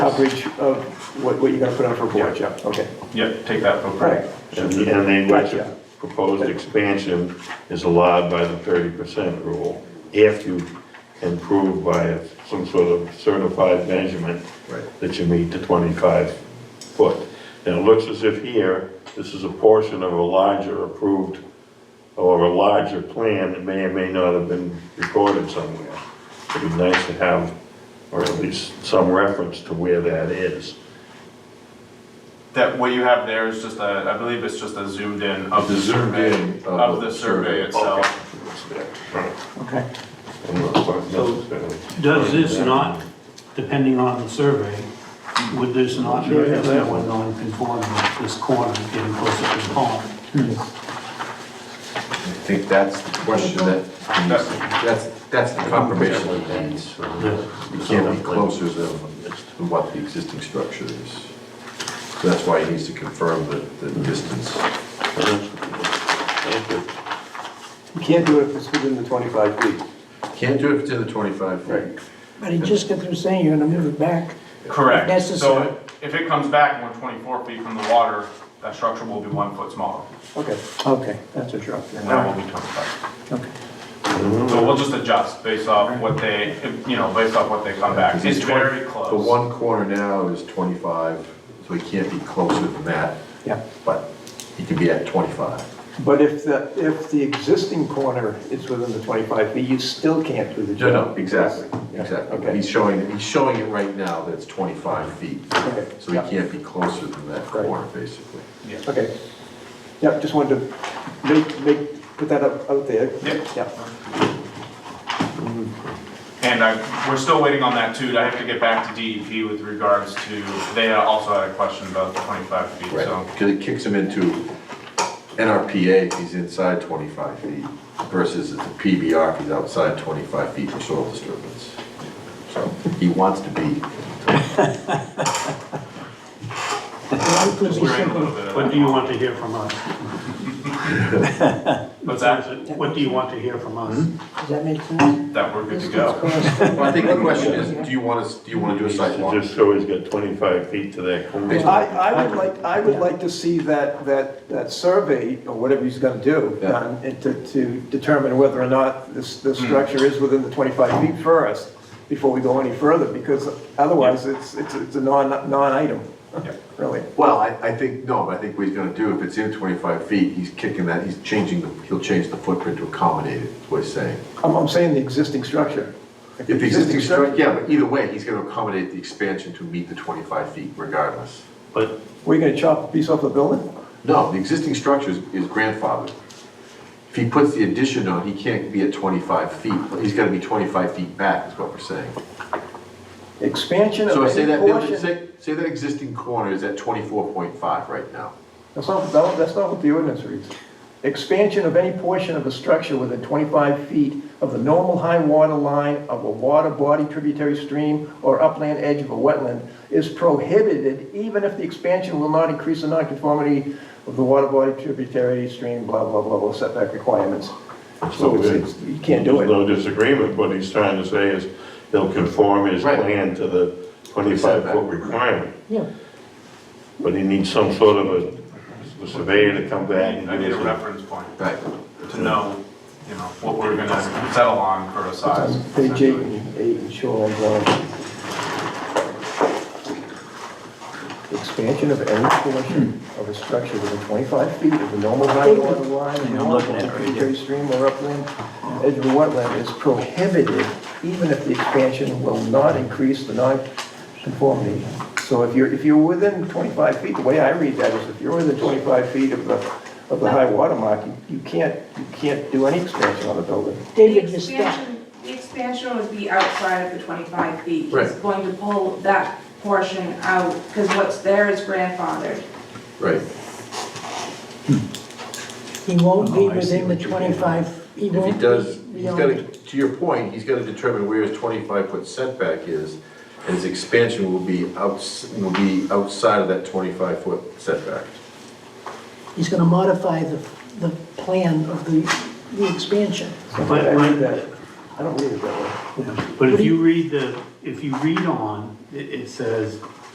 coverage of what, what you're gonna put on for a board, yeah, okay. Yeah, take that for Right. granted. And and then what the Gotcha. proposed expansion is allowed by the thirty percent rule, if you can prove by some sort of certified measurement Right. that you meet the twenty-five foot. And it looks as if here, this is a portion of a larger approved, or a larger plan that may or may not have been recorded somewhere. It'd be nice to have, or at least some reference to where that is. That, what you have there is just a, I believe it's just a zoomed in of the Zoomed in survey, of of the the survey survey. itself. Okay. I'm not quite necessarily- Does this not, depending on the survey, would this not be that we're non-conforming at this corner, getting closer to the pond? I think that's the question that, That's- that's, that's the confirmation that needs. It can't be closer than than what the existing structure is. So that's why he needs to confirm the, the distance. You can't do it if it's within the twenty-five feet. Can't do it if it's in the 25 feet. But he just got through saying you're gonna move it back. Correct, Necessary. so if it comes back and we're twenty-four feet from the water, that structure will be one foot smaller, Okay, okay, that's what you're up and that will be twenty-five. Okay. So we'll just adjust based off what they, you know, based off what they come back, it's very close. The one corner now is 25, so he can't be closer than that, Yeah, but he can be at 25. but if the, if the existing corner is within the twenty-five feet, you still can't do the No, job. no, exactly, Yeah, exactly. Okay. He's showing, he's showing it right now that it's 25 feet. Okay. So he can't be closer than that corner, basically. Yeah. Okay. Yeah, just wanted to make, make, put that up out there. Yep. Yeah. And I, we're still waiting on that too, I have to get back to DEP with regards to, they also had a question about the twenty-five feet, so. Because it kicks him into NRPA if he's inside 25 feet versus it's a PBR if he's outside 25 feet for soil disturbance. So he wants to be, Why could Just hearing be a simple? little bit of What do you want to hear from us? What's that? What do you want to hear from us? Does that make sense? That we're good to Distance go. cost. well, I think the question is, do you want to, do you want to do a site walk? Just so "Oh, he's got 25 feet to that corner. I, I would like, I would like to see that, that, that survey, or whatever he's gonna do, Yeah. Hmm. done, and to, to determine whether or not this, this structure is within the twenty-five feet first, before we go any further, because otherwise, it's, it's, it's a non, non-item, really. Well, I, I think, no, I think what he's gonna do, if it's in 25 feet, he's kicking that, he's changing, the he'll change the footprint to accommodate it, is what he's saying. I'm, I'm saying the existing structure. If the existing structure, yeah, but either way, he's gonna accommodate the expansion to meet the 25 feet regardless. But We're gonna chop a piece off the building? No, the existing structure is is grandfathered. If he puts the addition on, he can't be at 25 feet, he's gotta be 25 feet back, is what we're saying. Expansion of So say any that, building- portion? say, say that existing corner is at 24.5 right now. That's not, no, that's not what the ordinance reads. Expansion of any portion of a structure within 25 feet of the normal high water line of a water body, tributary stream, or upland edge of a wetland is prohibited even if the expansion will not increase the nonconformity of the water body, tributary stream, blah, blah, blah, blah, setback requirements. So it's, it's- you can't do There's it. no disagreement, what he's trying to say is he'll conform his Right. plan to the 25-foot requirement. Yeah. But he needs some sort of a- a surveyor to come back and I need give a us reference point Right. to know, you know, what we're gonna settle on for a size. Page eight essentially. and eight and shoreline zone. Expansion of any portion of a structure within 25 feet of the normal high water line, the tributary stream or upland, edge of a wetland is prohibited even if the expansion will not increase the non-conformity. So if you're, if you're within 25 feet, the way I read that is if you're within 25 feet of the, of the high water mark, you- you can't, you can't do any expansion on the building. David, The you're stuck. expansion- The expansion would be outside of the 25 feet. He's Right. going to pull that portion out, because what's there is grandfathered. Right. He won't be Oh, I see within the what you're doing. twenty-five, he If he won't does, be he's gotta, beyond. to your point, he's gotta determine where his twenty-five foot setback is, and his expansion will be outs, will be outside of that twenty-five foot setback. He's gonna modify the, the plan of the, the expansion. I read that. I don't read it that way. But if you read the, if you read on, it, it says,